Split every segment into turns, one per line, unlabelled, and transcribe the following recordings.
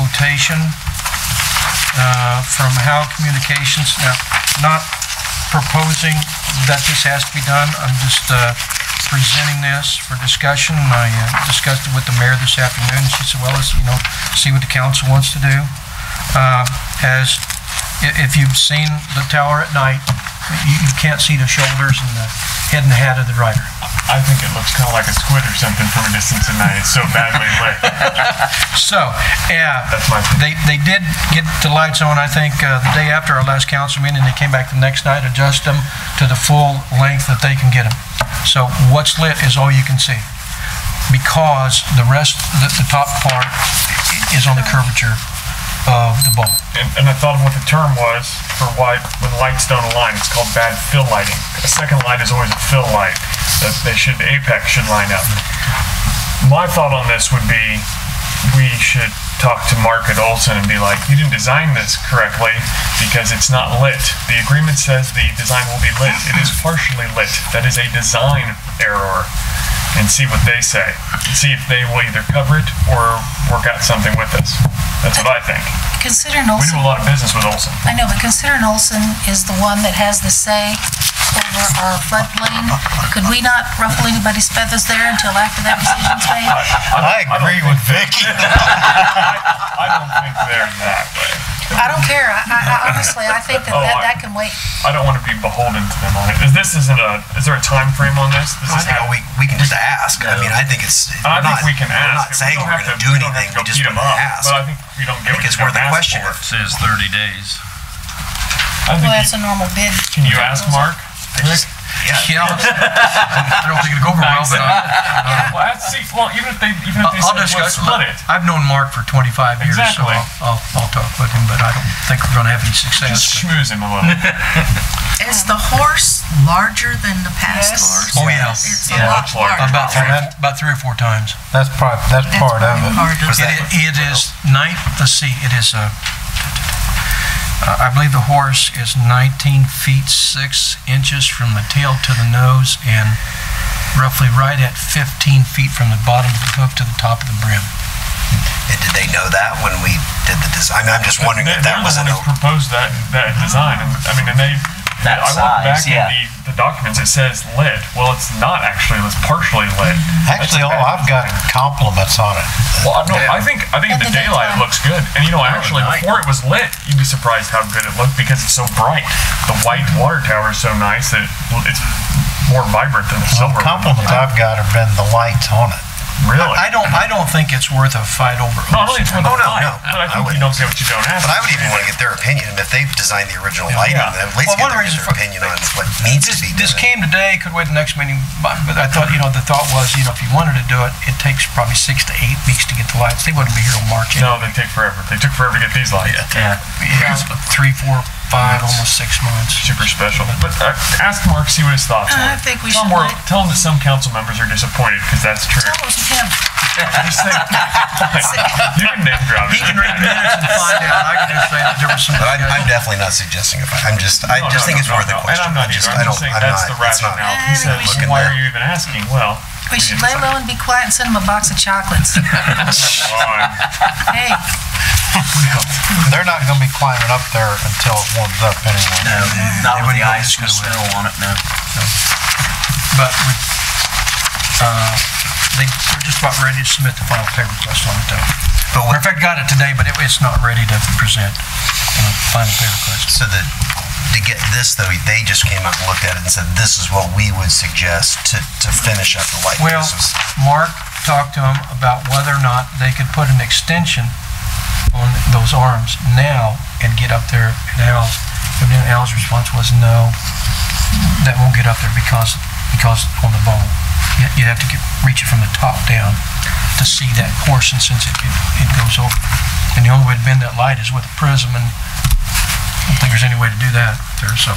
quotation uh, from HAL Communications. Now, not proposing that this has to be done, I'm just uh, presenting this for discussion. And I uh, discussed it with the mayor this afternoon, she said, well, let's, you know, see what the council wants to do. Um, Has, i- if you've seen the tower at night, you you can't see the shoulders and the head and the hat of the driver.
I think it looks kind of like a squid or something from a distance at night. It's so badly lit.
So, yeah.
That's my opinion.
They, they did get the lights on, I think, uh, the day after our last council meeting, they came back the next night, adjust them to the full length that they can get them. So what's lit is all you can see, because the rest, the, the top part is on the curvature of the bulb.
And, and I thought of what the term was for why when lights don't align, it's called bad fill lighting. A second light is always a fill light. That they should the apex should line up. My thought on this would be we should talk to Mark at Olson and be like, you didn't design this correctly because it's not lit. The agreement says the design will be lit. It is partially lit. That is a design error. And see what they say. And see if they will either cover it or work out something with us. That's what I think.
Considering
We do a
Olson,
lot of business with Olson.
I know, but considering Olson is the one that has the say over our floodplain, could we not ruffle anybody's feathers there until after that decision's made?
I agree with Vicky.
I don't think they're that way.
I don't care. I, I I honestly, I think that that, that can wait.
Oh, I don't want to be beholden to them on it. Is this isn't a? Is there a time frame on this? This
I
is
think we, we can just ask. I mean, I think it's, we're
I
not,
think we can
we're
ask.
not saying
don't
we're
have
gonna
to-
do
we don't have
anything,
to go
we just
beat 'em
wanna
up,
ask.
But I think we don't get.
think
what
it's
you're
worth the
gonna ask
question.
for.
says 30 days.
I think
Well,
you-
that's a normal bid.
can you ask Mark?
I just- Yeah,
Yeah, I don't think it'll go over well, but I-
Well, that's, see, well, even if they, even if they
I'll
said, well,
discuss.
split it.
I've known Mark for 25 years, so
Exactly.
I'll- I'll, I'll talk with him, but I don't think we're gonna have any
Just
success.
schmooze him a little.
Is the horse larger than the past
Yes.
horse?
Oh, yeah.
It's
Yeah,
a lot
much larger.
larger.
About, about three or four times.
That's part, that's
That's
part of
probably
it.
part of
Was
it.
that-
It- It is nine, let's see, it is, uh, uh, I believe the horse is 19 feet 6 inches from the tail to the nose and roughly right at 15 feet from the bottom of the hook to the top of the brim.
and did they know that when we did the design? I mean, I'm just wondering
They-
if
They're
that
the
was
one
an,
who
o-
proposed that, that design, and, I mean, and they,
That
I look back
size, yeah.
at the, the documents, it says lit, well, it's not actually, it's partially lit.
Mm-hmm.
Actually, oh, I've got compliments on it.
Well, I, no, I think, I think in
In
the
the
daylight it
daytime.
looks good, and you know, actually,
night.
before it was lit, you'd be surprised how good it looked because it's so bright. The white water tower is so nice that it- it's more vibrant than the silver. one.
Compliments I've got have been the lights on it.
Really?
I don't, I don't think it's worth a fight over.
Not only it's more than
Oh, no,
light,
no,
but I
I
think you
wouldn't.
don't get what you don't ask.
but I would even want to get their opinion. If they've designed the original lighting,
Yeah.
then at least
Well,
get
one
their
reason
get their
for-
opinion on what needs to be
This
done.
came today, could wait the next meeting, but but I thought, you know, the thought was, you know, if you wanted to do it, it takes probably six to eight weeks to get the lights. They wouldn't be here till March.
No, they take forever. They took forever to get these lights.
Yeah.
Yeah, Three, four, five, almost six months.
super special. But uh, ask Mark, see what his thoughts are.
Uh, I think we
tell him
should
we're-
let-
Tell him that some council members are disappointed, because that's true.
Tell us him.
Just think- you can name drop
He
it.
can read the minutes and find out. I can just say that there was some.
But I'm, I'm definitely not suggesting it. I'm just, I
No,
just
no,
think
no,
it's
no,
worth
no.
a question.
And I'm not
I just-
either.
I
I'm
don't-
just saying
I'm
that's
not-
the
it's not-
rationale.
I
He
think
said,
we
should-
why are you even asking? Well,
We should lay
didn't
low and be quiet and send him a box of chocolates.
decide. All right.
Hey,
They're not gonna be climbing up there until it warms up anyway.
No, not with the
wouldn't go
ice
this
and the
good
snow on it, no.
But we, uh, they, they're just about ready to submit the final pay request on it though. Matter of fact, got it today, but it, it's not ready to present on the final pay request.
So that, to get this though, they just came up and looked at it and said, this is what we would suggest to, to finish up the light.
Well,
This was-
Mark talked to him about whether or not they could put an extension on those arms now and get up there. And Al's, and then Al's response was, no, that won't get up there because, because on the bowl. You- You'd have to get, reach it from the top down to see that portion since it, it it goes over. And the only way to bend that light is with a prism and I don't think there's any way to do that there, so.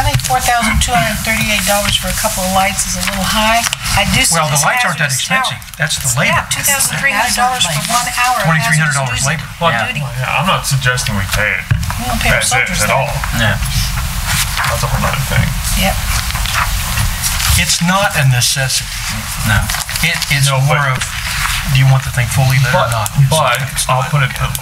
I think four thousand two hundred and thirty-eight dollars for a couple of lights is a little high. I do see
Well, the
this
lights aren't that
hazardous tower.
expensive. That's the labor.
Yeah, two thousand three hundred dollars for one hour. of hazardous
$2,300
duty-
labor.
Well,
duty.
well, yeah, I'm not suggesting we pay it.
We don't pay our
That's it
soldiers
at
that.
all.
No.
That's a whole other thing.
Yep.
It's not a necessity.
No.
It is
No, but-
more of, do you want the thing fully lit or
But,
not?
but I'll put it to